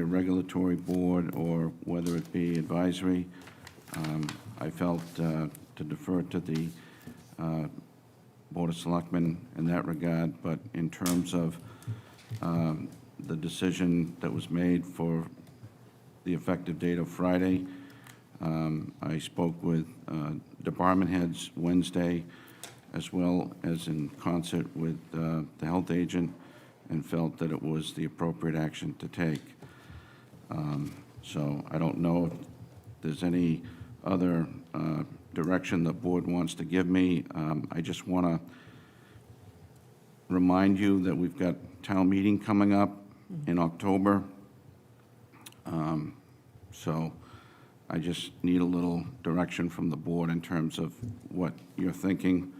a regulatory board or whether it be advisory. Um, I felt uh, to defer to the uh, Board of Selectmen in that regard, but in terms of um, the decision that was made for the effective date of Friday, um, I spoke with uh, department heads Wednesday, as well as in concert with uh, the health agent, and felt that it was the appropriate action to take. So I don't know if there's any other uh, direction the board wants to give me. Um, I just want to remind you that we've got town meeting coming up in October. Um, So I just need a little direction from the board in terms of what you're thinking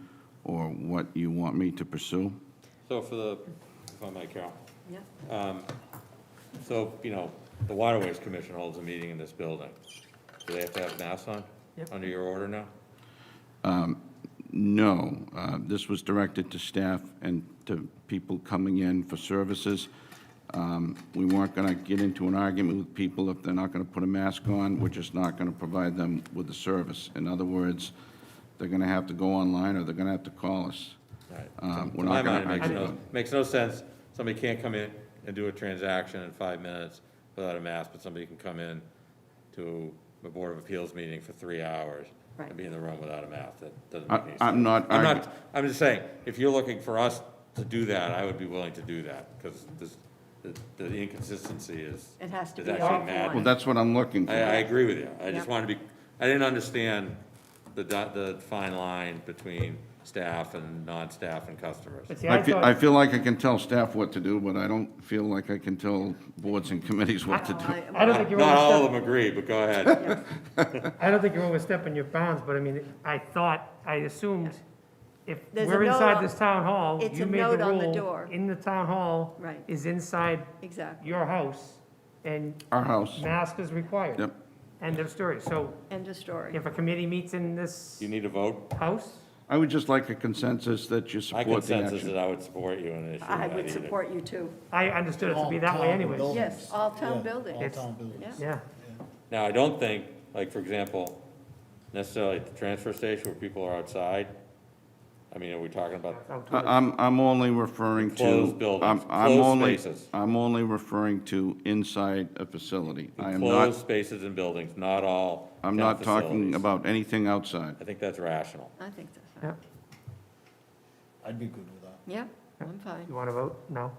or what you want me to pursue. So for the, if I might, Carol, Yeah, so, you know, the Waterways Commission holds a meeting in this building. Do they have to have masks on? Yep. Under your order now? No, uh, this was directed to staff and to people coming in for services. Um, We weren't going to get into an argument with people if they're not going to put a mask on. We're just not going to provide them with the service. In other words, they're going to have to go online or they're going to have to call us. Right. Uh, To We're my not going mind, to it makes argue. no, them. makes no sense, somebody can't come in and do a transaction in five minutes without a mask, but somebody can come in to a Board of Appeals meeting for three hours and Right. be in the room without a mask, that doesn't make any I- sense. I'm not I'm arguing. not, I'm just saying, if you're looking for us to do that, I would be willing to do that, because this, the- the inconsistency is. It has to is be actually offline. mad. Well, that's what I'm looking I, I for. agree with you, I just Yeah. wanted to be, I didn't understand the, dot- the fine line between staff and non-staff and customers. But see, I I feel, I thought, feel like I can tell staff what to do, but I don't feel like I can tell boards and committees what to do. I don't think you Not all of overstep, them agree, but go ahead. I don't think you're overstepping your bounds, but I mean, I thought, I assumed if There's a we're note inside on- this town hall, it's you a made the note on the rule, door. in the town hall Right. is inside Exactly. your house, and Our house, mask is required. Yep. End of story. So End of story. if a committee meets in this You need a vote? house, I would just like a consensus that you My support the consensus is action. that I would support you in an issue. I not would either. support you too. I understood it to be that way All-town anyway. buildings. Yes, all town Yeah, buildings. All It's- town buildings. Yeah. Yeah, Now, I don't think, like, for example, necessarily at the transfer station where people are outside, I mean, are we talking about, I- outdoors. I'm, I'm only referring to. Enclosed buildings, I'm- I'm closed only- spaces. I'm only referring to inside a facility. I am enclosed not, spaces and buildings, not all I'm town not talking facilities. about anything outside. I think that's rational. I think that's Yeah. fine. I'd be good with that. Yeah, I'm fine. You want to vote? No?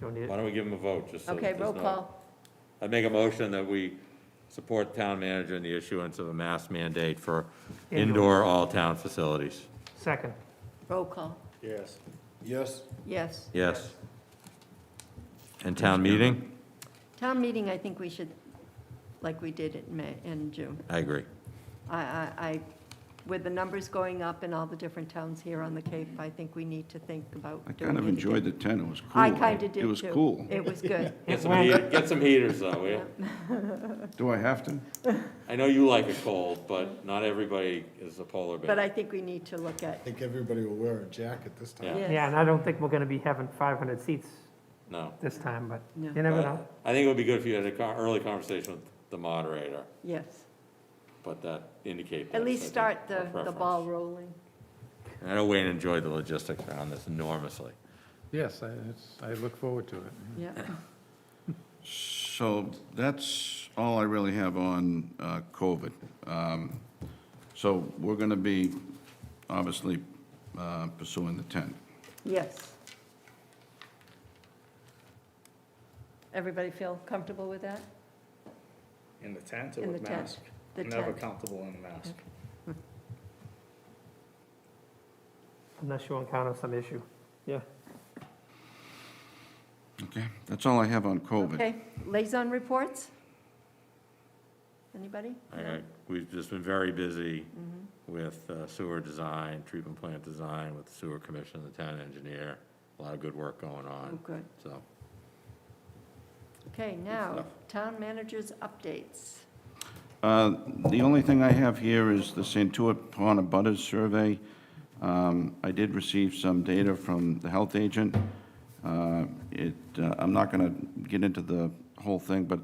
Don't need Why it? don't we give them a vote, just so that Okay, there's roll no- call. I make a motion that we support the town manager in the issuance of a mask mandate for Indoor. indoor all-town facilities. Second. Roll call. Yes. Yes, Yes. Yes. And town meeting? Town meeting, I think we should, like we did in May, in June. I agree. I, I, I, with the numbers going up in all the different towns here on the Cape, I think we need to think about I doing kind of it enjoyed again. the tent, it was cool. I kind of did too. It was cool. It was good. Get some heat- get some heaters though, will you? Do I have to? I know you like a cold, but not everybody is a polar But bear. I think we need to look at, I think everybody will wear a jacket this time. Yeah. Yeah, and yes, I don't think we're going to be having 500 seats No. this time, but No. you never But know. I think it would be good if you had an early conversation with the moderator, yes. but that indicate. At that's, I least think, start our the, the preference. ball rolling. And I know Wayne enjoyed the logistics around this enormously. Yes, I, it's, I look forward to it. Yeah, So that's all I really have on uh, COVID. Um, So we're going to be obviously uh, pursuing the tent. yes. Everybody feel comfortable with that? In the tent In or with the tent. mask? The Never tent, comfortable in the mask. Unless you encounter some issue. Yeah. Okay, that's all I have on COVID. okay. Liaison reports? Anybody? All right, we've just been very busy with uh, sewer design, treatment plant design, with the sewer commission, the town engineer, a lot of good work going Oh, on, good. so. Okay, now, stuff. town managers' updates. Uh, The only thing I have here is the Santuit Pond Abutters Survey. Um, I did receive some data from the health agent. Uh, It, uh, I'm not going to get into the whole thing, but